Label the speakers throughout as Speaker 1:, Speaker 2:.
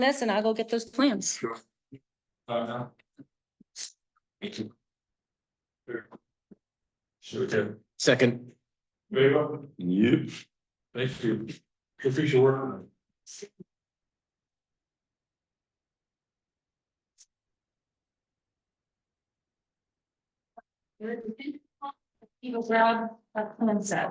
Speaker 1: this and I'll go get those plans.
Speaker 2: Sure. Uh, no. Me too. Sure. Sure, Tim.
Speaker 3: Second.
Speaker 2: Very well.
Speaker 3: Yep.
Speaker 2: Thank you. Appreciate your work. on it.
Speaker 1: Eagle Rob, a plan set.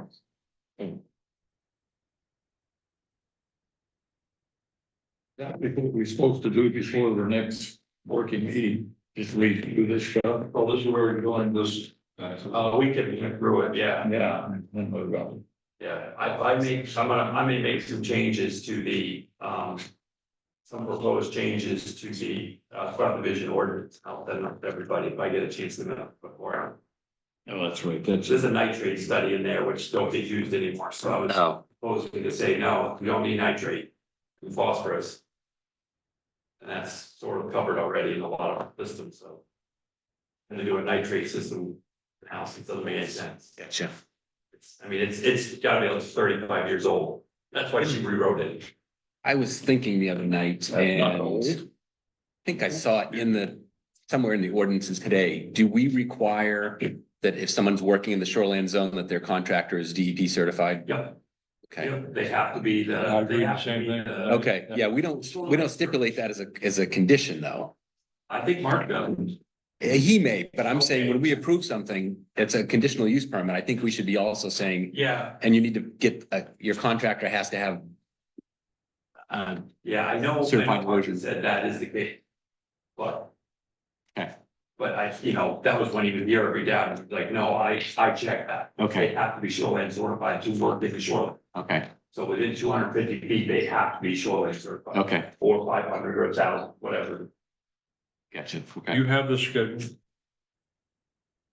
Speaker 2: That we think we're supposed to do before the next working meeting, just we do this job. Well, this is where we're going, this, uh, we can get through it, yeah. Yeah.
Speaker 4: Yeah, I, I make, I'm gonna, I may make some changes to the, um. Some proposed changes to the, uh, subdivision ordinance, I'll send them to everybody if I get a chance to know before.
Speaker 2: Oh, that's right, that's.
Speaker 4: There's a nitrate study in there which don't get used anymore, so I was
Speaker 3: No.
Speaker 4: supposed to say, no, we don't need nitrate, and phosphorus. And that's sort of covered already in a lot of systems, so. And to do a nitrate system, in house, it doesn't make any sense. Yeah.
Speaker 3: Gotcha.
Speaker 4: It's, I mean, it's, it's gotta be like thirty-five years old. That's why
Speaker 3: Hmm.
Speaker 4: she rewrote it.
Speaker 3: I was thinking the other night
Speaker 2: That's
Speaker 3: and
Speaker 2: not
Speaker 3: I
Speaker 2: old.
Speaker 3: think I saw it in the, somewhere in the ordinances today. Do we require that if someone's working in the shoreland zone, that their contractor is DEP certified?
Speaker 4: Yep,
Speaker 3: Okay.
Speaker 4: yep, they have to be
Speaker 2: I
Speaker 4: the,
Speaker 2: agree,
Speaker 4: they have to
Speaker 2: same
Speaker 4: be
Speaker 2: thing.
Speaker 4: the,
Speaker 3: Okay, yeah, we don't, we don't stipulate that as a, as a condition though.
Speaker 4: I think Mark does.
Speaker 3: Eh, He may, but I'm saying when we approve something, it's a conditional use permit. I think we should be also saying,
Speaker 4: Yeah,
Speaker 3: and you need to get, uh, your contractor has to have um,
Speaker 4: yeah, I know, I know
Speaker 3: Certified
Speaker 4: Mark
Speaker 3: version.
Speaker 4: said that is the case. But.
Speaker 3: Okay.
Speaker 4: But I, you know, that was when he was here every day, and he's like, no, I, I checked that. They
Speaker 3: okay,
Speaker 4: have to be shoreline certified to work in the shoreline.
Speaker 3: okay,
Speaker 4: So within two hundred fifty feet, they have to be shoreline certified,
Speaker 3: okay,
Speaker 4: or five hundred or a thousand, whatever.
Speaker 3: gotcha,
Speaker 2: You have the schedule.